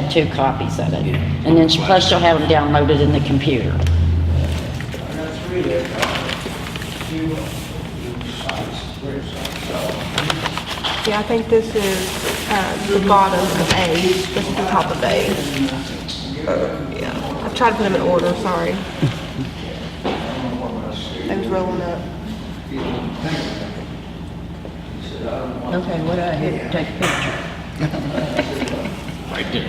have two copies of it. And then she- plus she'll have them downloaded in the computer. That's really a few sites, websites, Yeah, I think this is uh, the bottom of A. This is the top of A. Uh, Yeah, I've tried to put them in order, sorry. They was rolling up. Okay, what I had to take a picture. Right there.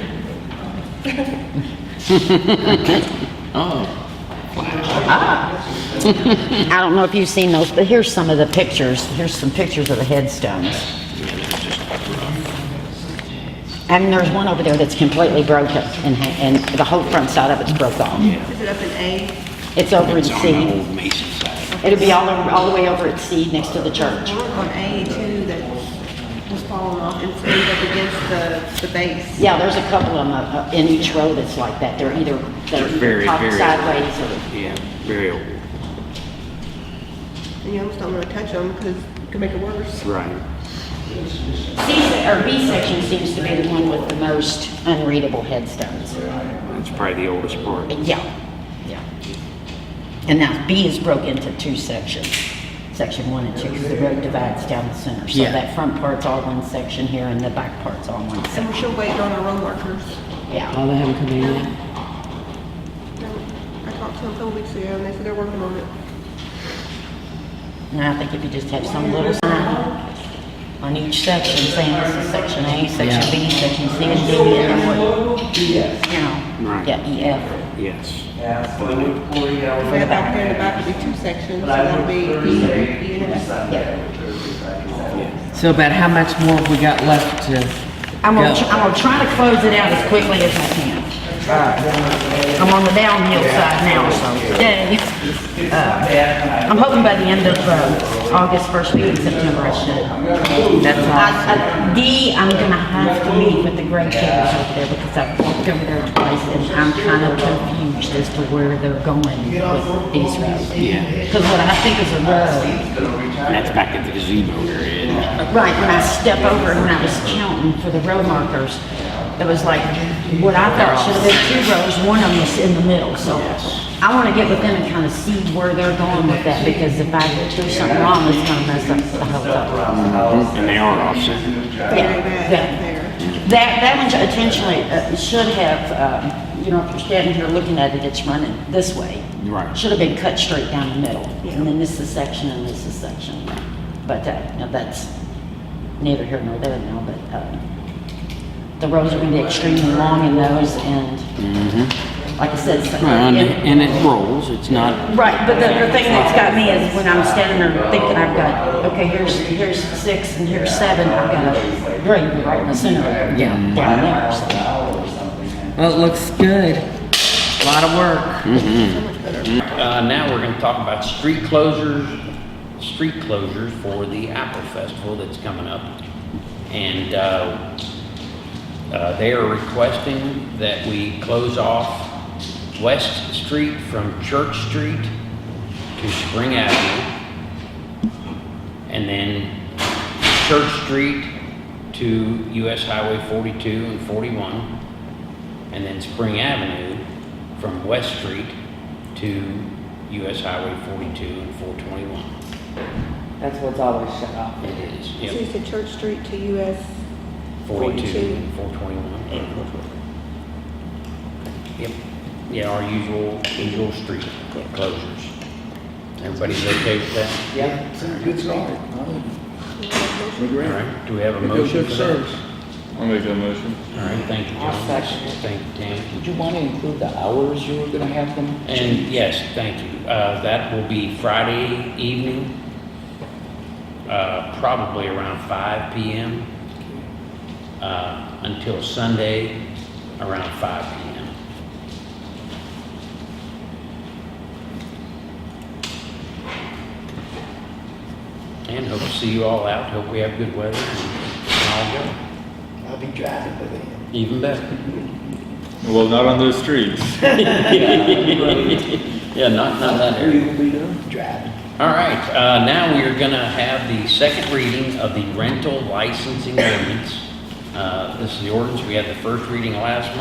Oh, I don't know if you've seen those, but here's some of the pictures. Here's some pictures of the headstones. And there's one over there that's completely broken and, ha- and the whole front side of it's broke off. Is it up in A? It's over in it's on the C. old Mason side. It'll be all, over- all the way over at C next to the church. on A too that was falling off and stayed up against the, the base. Yeah, there's a couple of them uh, uh, in each row that's like that. They're either, They're they're very, either very- top sideways or, Yeah, very old. And you almost don't want to touch them because it could make it worse. Right. C, se- or B section seems to be the one with the most unreadable headstones. It's probably the oldest part. Yeah, yeah. And now B is broke into two sections, section one and two, 'cause the road divides down the center. So Yeah. that front part's all one section here and the back part's all one And we're section, still waiting on our road markers. yeah. Oh, they haven't come in yet? I talked to them a couple weeks ago and they said they're working on it. And I think if you just have some little sign on each section saying this is section A, section B, section C, and D, and then what, you know, Right. yeah, E, F. Yes. yeah, for forty Right hours. back there in the back would be two sections, so But I that'll work be E, Thursday, E and F. Sunday, Thursday, So about how much more have we got left to? I'm gonna, Yeah. tr- I'm gonna try to close it out as quickly as I can. I'm on the downhill side now, so, yay. Saturday. I'm hoping by the end of uh, August, first week in September, I should. That's all. I- I- Uh, D, I'm gonna have to meet with the grave diggers over there because I've walked over there twice and I'm kind of confused as to where they're going with these roads. Yeah. Because what I think is a road, And that's back at the gazebo area. isn't it? right, when I step over and I was counting for the road markers, it was like, what I thought should have been two rows, one of them is in the middle, so. I wanna get with them and kind of see where they're going with that because if I do something wrong, it's gonna mess up the whole thing. And they are offset. Very bad Yeah. up there. That, that one intentionally uh, should have, um, you know, if you're standing here looking at it, it's running this way. Right. Should have been cut straight down the middle. And then this is section and this is section. But uh, no, that's neither here nor there now, but uh, the rows are going to be extremely long in those and, like I said, it's- Mm-hmm. Well, And, it- and it rolls, it's not, Right, but the, the thing that's got me is when I'm standing there thinking I've got, okay, here's, here's six and here's seven, I've got a green right in the center of it, down there, so. Well, it looks good. A Lot of work. Mm-hmm. Uh, now we're gonna talk about street closures, street closures for the Apple Festival that's coming up. And, uh, uh, they are requesting that we close off West Street from Church Street to Spring Avenue. And then Church Street to US Highway forty-two and forty-one. And then Spring Avenue from West Street to US Highway forty-two and four twenty-one. That's what's always shut off. It is, So yep, you said Church Street to US, forty-two and four twenty-one. Yep, yeah, our usual, usual street closures. Everybody's okay with that? Yep. Good start. All right, do we have a motion for that? I'll make that motion. All right, thank you, I'll John. second it. Thank you, Tammy. Did you want to include the hours you were gonna have them? And yes, thank you. Uh, that will be Friday evening, uh, probably around five PM, uh, until Sunday around five PM. And hope to see you all out. Hope we have good weather and all go. I'll be driving with him. Even better. Well, not on those streets. Yeah, not, not that area. All right, uh, now we are gonna have the second reading of the rental licensing ordinance. Uh, this is the ordinance, we had the first reading last